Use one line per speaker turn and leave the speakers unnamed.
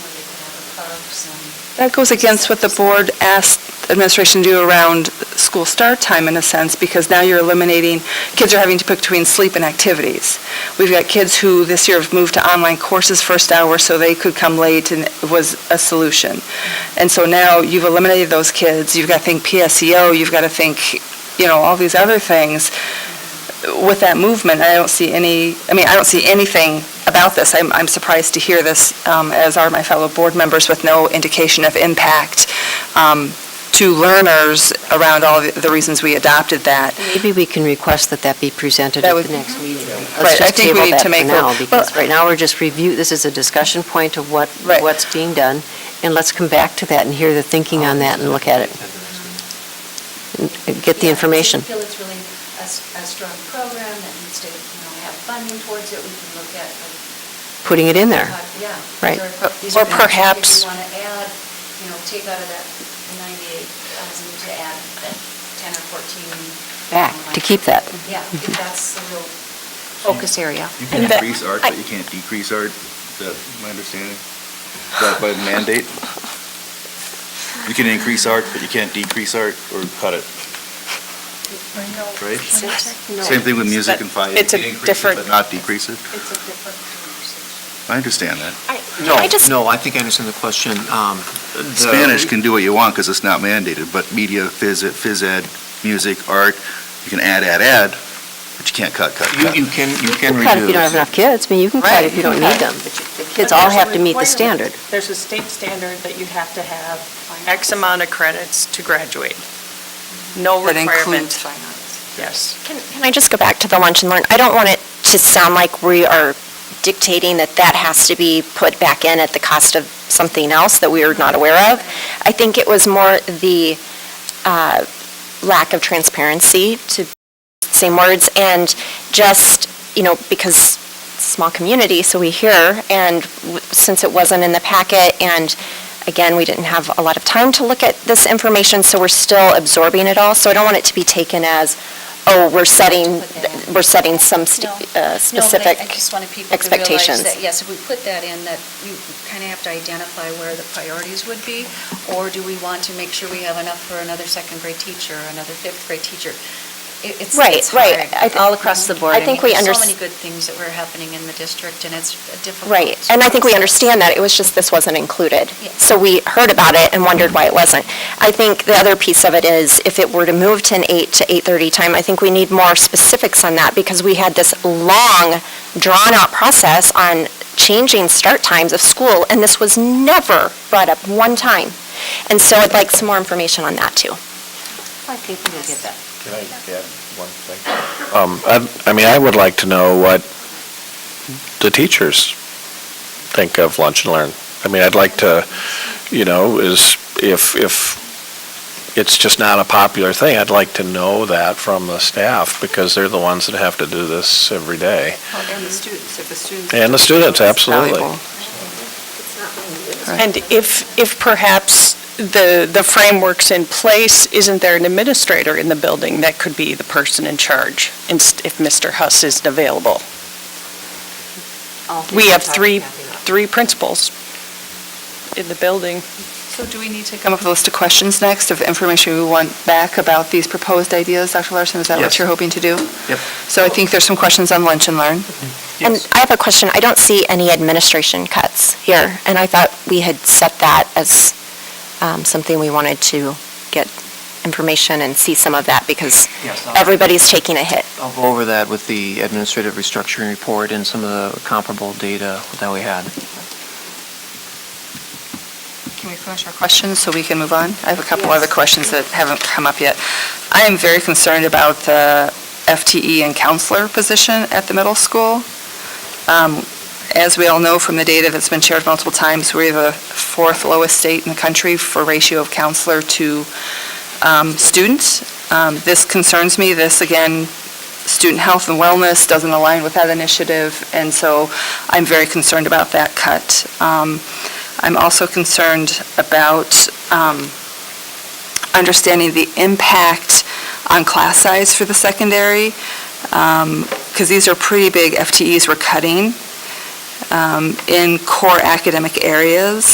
curbs and,
That goes against what the board asked administration to do around school start time, in a sense, because now you're eliminating, kids are having to pick between sleep and activities. We've got kids who this year have moved to online courses first hour, so they could come late, and it was a solution. And so now you've eliminated those kids, you've got to think PSEO, you've got to think, you know, all these other things. With that movement, I don't see any, I mean, I don't see anything about this. I'm, I'm surprised to hear this, um, as are my fellow board members, with no indication of impact um, to learners around all the- the reasons we adopted that.
Maybe we can request that that be presented
That
at
would-
the next meeting.
Right, I
Let's just
think we
table
need
that
to
for
make a-
now,
well-
because right now, we're just review, this is a discussion point of what,
Right.
what's being done, and let's come back to that and hear the thinking on that and look at it, and get the
Yeah, if
information.
we feel it's really a, s- a strong program that needs to, you know, have funding towards it, we can look at. like,
Putting it in there.
uh, Yeah.
Right.
Or these
Or
are things
perhaps-
That you want to add, you know, take out of that ninety-eight thousand to add that ten or fourteen.
Back, to keep that.
Yeah, if that's the real focus area.
You
And
can
that-
increase art,
I-
but you can't decrease art, that, my understanding, that by mandate. You can increase art, but you can't decrease art or cut it, right? Same thing with music and fire.
It's a
You can increase it,
different-
But not decrease it,
It's a different conversation.
I understand that.
No,
I just-
no, I think I understand the question. Um, the-
Spanish can do what you want because it's not mandated, but media, phys, ed- phys ed, music, art, you can add, add, add, but you can't cut, cut,
You
cut.
you can, you can
Cut if you don't have
reduce.
enough kids, I mean, you can cut
Right,
if you don't
you can
need them, but you- the kids all have to meet the standard.
There's a state standard that you have to have X amount of credits to graduate. No
That
requirement,
includes fine arts.
yes.
Can can I just go back to the lunch and learn? I don't want it to sound like we are dictating that that has to be put back in at the cost of something else that we are not aware of. I think it was more the uh, lack of transparency, to same words, and just, you know, because it's a small community, so we hear, and w- since it wasn't in the packet, and again, we didn't have a lot of time to look at this information, so we're still absorbing it all, so I don't want it to be taken as, oh, we're setting,
Put that in.
we're setting some st- uh,
No,
specific
but I- I just wanted people to realize
expectations.
that, yes, if we put that in, that you kind of have to identify where the priorities would be, or do we want to make sure we have enough for another second grade teacher, another fifth grade teacher? It- It's,
Right,
it's
right.
hard,
I thi-
all across the board.
I think we
mean,
under-
There's so many good things that were happening in the district, and it's difficult.
Right, and I think we understand that, it was just this wasn't included.
Yeah.
So we heard about it and wondered why it wasn't. I think the other piece of it is, if it were to move to an 8 to 8:30 time, I think we need more specifics on that, because we had this long, drawn-out process on changing start times of school, and this was never brought up one time. And so I'd like some more information on that, too.
I think we'll get that.
Can I add one thing? Um, I, I mean, I would like to know what the teachers think of lunch and learn. I mean, I'd like to, you know, is, if, if it's just not a popular thing, I'd like to know that from the staff, because they're the ones that have to do this every day.
And the students, if the students.
And the students, absolutely.
And if, if perhaps the, the framework's in place, isn't there an administrator in the building that could be the person in charge, inst- if Mr. Huss isn't available? We have three, three principals in the building.
So do we need to come up with a list of questions next, of information we want back about these proposed ideas, Dr. Larson? Is that what
Yes.
you're hoping to do?
Yep.
So I think there's some questions on lunch and learn.
And I have a question, I don't see any administration cuts here, and I thought we had set that as um, something we wanted to get information and see some of that, because
Yes, I'll-
everybody's taking a hit.
I'll go over that with the administrative restructuring report and some of the comparable data that we had.
Can we finish our questions so we can move on? I have a couple other questions that haven't come up yet. I am very concerned about the FTE and counselor position at the middle school. Um, As we all know from the data that's been shared multiple times, we're the fourth lowest state in the country for ratio of counselor to um, student. Um, This concerns me. This, again, student health and wellness doesn't align with that initiative, and so I'm very concerned about that cut. Um, I'm also concerned about um, understanding the impact on class size for the secondary, because these are pretty big FTEs we're cutting um, in core academic areas.